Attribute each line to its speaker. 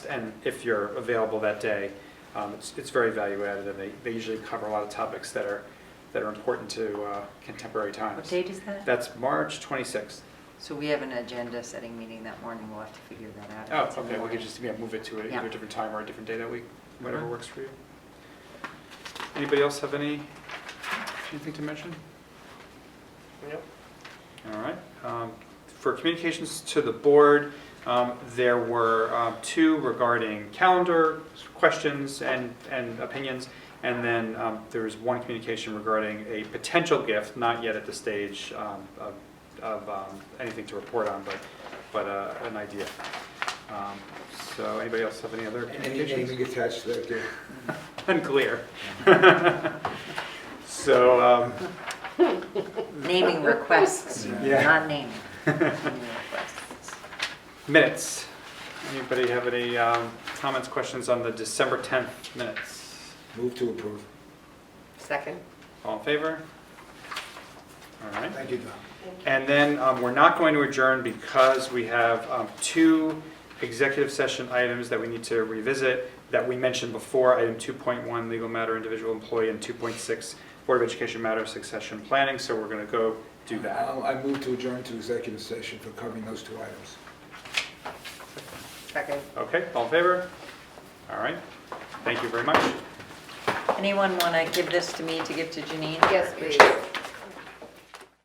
Speaker 1: and if you're available that day, um, it's, it's very value added, and they, they usually cover a lot of topics that are, that are important to uh, contemporary
Speaker 2: What
Speaker 1: times.
Speaker 2: date is that?
Speaker 1: That's March 26th.
Speaker 2: So we have an agenda setting meeting that morning, we'll have to figure that out. if
Speaker 1: Oh,
Speaker 2: it's in the
Speaker 1: okay, we
Speaker 2: morning.
Speaker 1: could just, yeah, move it to a-
Speaker 2: Yeah.
Speaker 1: either a different time or a different day that week, whatever
Speaker 2: Mhm.
Speaker 1: works for you. Anybody else have any, anything to mention?
Speaker 3: Yep.
Speaker 1: All right. Um, For communications to the board, um, there were um, two regarding calendar questions and, and opinions. And then um, there was one communication regarding a potential gift, not yet at the stage um, of, of um, anything to report on, but, but uh, an idea. Um, So anybody else have any other communications?
Speaker 4: Anything attached to that, yeah.
Speaker 1: Unclear. So, um,
Speaker 2: Naming requests,
Speaker 1: Yeah.
Speaker 2: not naming. Naming requests.
Speaker 1: Minutes. Anybody have any um, comments, questions on the December 10th minutes?
Speaker 4: Move to approve.
Speaker 3: Second?
Speaker 1: All in favor? All right.
Speaker 4: Thank you, Don.
Speaker 1: And then um, we're not going to adjourn because we have um, two executive session items that we need to revisit that we mentioned before, item 2.1, legal matter, individual employee, and 2.6, Board of Education matter, succession planning. So we're going to go do that.
Speaker 4: I'll- I move to adjourn to executive session for covering those two items.
Speaker 3: Second.
Speaker 1: Okay, all in favor? All right. Thank you very much.
Speaker 2: Anyone want to give this to me to give to Janine?
Speaker 3: Yes, please.